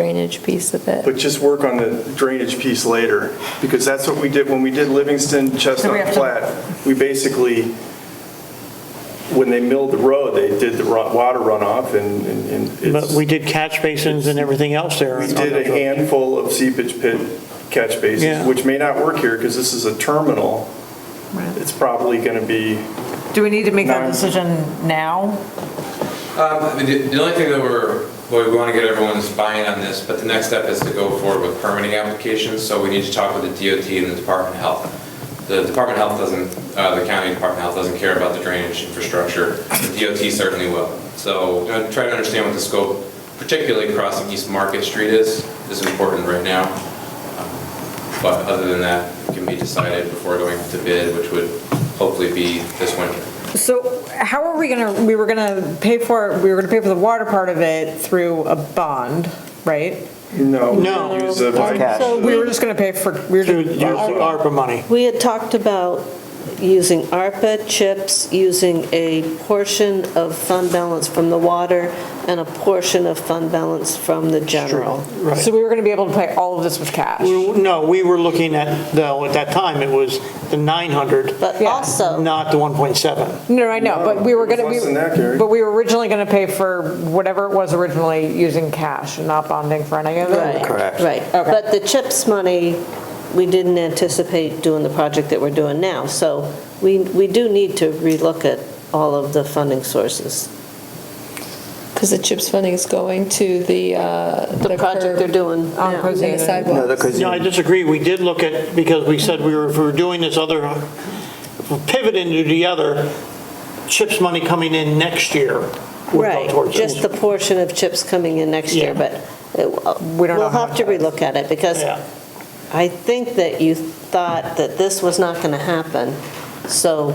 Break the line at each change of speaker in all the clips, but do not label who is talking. drainage piece of it.
But just work on the drainage piece later, because that's what we did, when we did Livingston,
So we
Chestnut
have to-
Flat, we basically, when they milled the road, they did the ru- water runoff and, and- and
But
it's,
we
we
did catch basins and everything else there.
did a handful of seepage pit catch
Yeah.
basins, which may not work here, because this is a terminal. It's probably going to be,
Do we need to make that
No.
decision now?
Um, I mean, The the only thing that we're, well, we want to get everyone's buy-in on this, but the next step is to go forward with permitting applications, so we need to talk with the DOT and the Department of Health. The Department of Health doesn't, uh, the county Department of Health doesn't care about the drainage infrastructure, the DOT certainly will. So uh, try to understand what the scope, particularly crossing East Market Street is, is important right now. But other than that, it can be decided before going to bid, which would hopefully be this winter.
So how are we gonna, we were gonna pay for, it. we were gonna pay for the water part of it through a bond, right?
no. we
No.
use a-
We were just gonna pay for, we were,
Through use of
just-
ARPA money.
We had talked about using ARPA chips, using a portion of fund balance from the water and a portion of fund balance from the general.
Right.
so we were gonna be able to pay all of this with cash.
We- No, we were looking at, though, at that time, it was the 900,
But
Yeah.
also,
not the 1.7.
No, I know, but we were
No, it
gonna,
was less than that, Gary.
we- but we were originally gonna pay for whatever it was originally using cash and not bonding for any of
right,
it.
right. But the chips money, we didn't anticipate doing the project that we're doing now. So we, we do need to relook at all of the funding sources.
Because the CHIPS funding is going to the, uh,
The project they're
curb
doing
On
now.
and
Cozy.
the sidewalk.
No, I disagree. We did look at, because we said we were, if we were doing this other, if we pivot into the other, CHIPS money coming in next year would go
Right,
towards this.
just the portion of chips coming in next
Yeah.
year, but it-
We don't know
we'll
how
have to
much
relook at it because
Yeah.
I think that you thought that this was not going to happen, so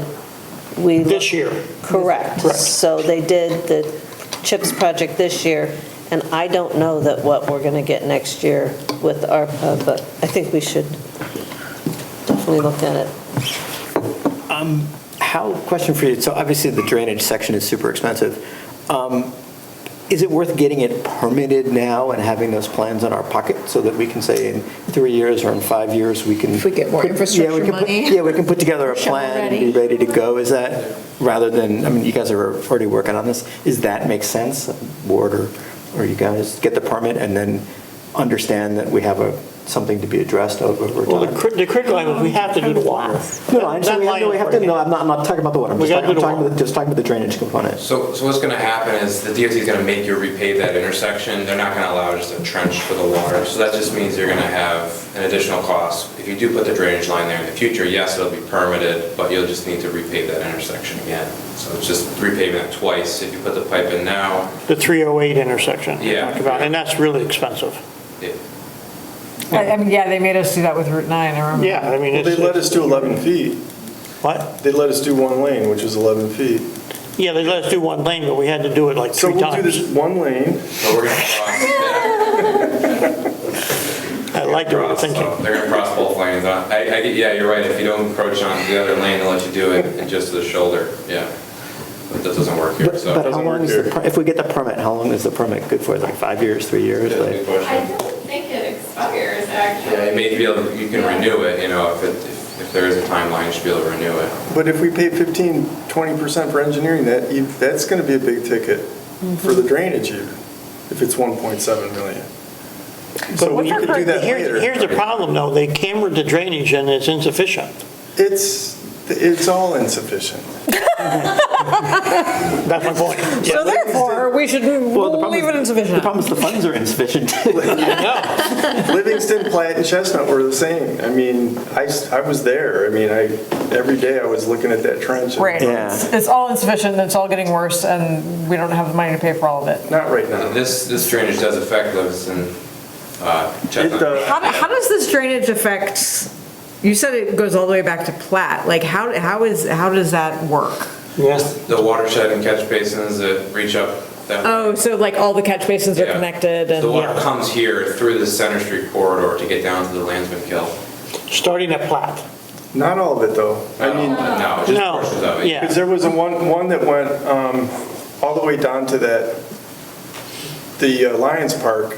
we.
This year.
Correct.
Correct.
So they did the CHIPS project this year, and I don't know that what we're going to get next year with ARPA, but I think we should definitely look at it.
How, question for you, so obviously the drainage section is super expensive. Um, Is it worth getting it permitted now and having those plans in our pocket so that we can say in three years or in five years, we can?
If we get more
put- yeah, we
infrastructure
can put-
money.
Yeah, we can put together a
Shovel
plan and
ready.
be ready to go, is that, rather than, I mean, you guys are already working on this, is that make sense? Board or, or you guys get the permit and then understand that we have a, something to be addressed over over time?
Well, the crit- the critical angle is we have to do the water.
No, no, I understand, we have- no, we have to, no, I'm not, I'm not talking about the water, I'm
We
just
gotta do
talking, I'm
the
talking
water.
about, just talking about the drainage component.
So, so what's gonna happen is the DOT is gonna make you repave that intersection. They're not gonna allow just a trench for the water. So that just means you're gonna have an additional cost. If you do put the drainage line there in the future, yes, it'll be permitted, but you'll just need to repave that intersection again. So it's just repaving that twice. If you put the pipe in now,
The 308 intersection we
Yeah.
talked about, and that's really expensive.
it,
I I mean, yeah, they made us do that with Route 9, I remember.
Yeah, I mean,
Well,
it's.
They let us do 11 feet.
What?
They let us do one lane, which is 11 feet.
Yeah, they let us do one lane, but we had to do it like
So
three
we'll do
times.
this one lane,
so we're gonna cross.
I like the way you're
Cross, so
thinking.
They're gonna cross both lanes. I, I, get- yeah, you're right. If you don't encroach on the other lane, they'll let you do it and just to the shoulder, yeah. But that doesn't work here,
But
so.
but how
work
long is the,
here.
per- if we get the permit, how long is the permit good for, like five years, three years?
Yeah,
Like,
good question.
I don't think it expires,
Yeah,
actually.
it may be able, you can renew it, you know, if it, if- if there is a timeline, you should be able to renew it.
but if we pay 15, 20% for engineering, that, e- that's going to be a big ticket for
Mm-hmm.
the drainage even, if it's 1.7 million. So we could do that
Here's- Here's the
later.
problem, though, they cambered the drainage and it's insufficient.
It's, it's all insufficient.
That's my point.
So
Yeah.
therefore, we should,
Well, the
we'll
problem
leave
is-
it in
The
sufficient.
problem is the funds are insufficient.
Livingston, Platt, and Chestnut were the same. I mean, I, s- I was there. I mean, I, every day I was looking at that trench.
Right,
Yeah.
it's it's all insufficient, it's all getting worse, and we don't have the money to pay for all of it.
Not right now.
This, this drainage does affect those in, uh,
It,
Chestnut.
uh,
How, how does this drainage affect, you said it goes all the way back to Platt, like how, how is, how does that work?
Yes.
The watershed and catch basins that reach up that.
Oh, so like all the catch basins are
Yeah.
connected
The
and,
water comes here through the Center Street corridor to get down to the Landsman Kill.
Starting at Platt.
Not all of it, though. I mean,
No, just
No,
portions of it.
yeah.
Because there was a one, one that went um, all the way down to that, the uh, Lions Park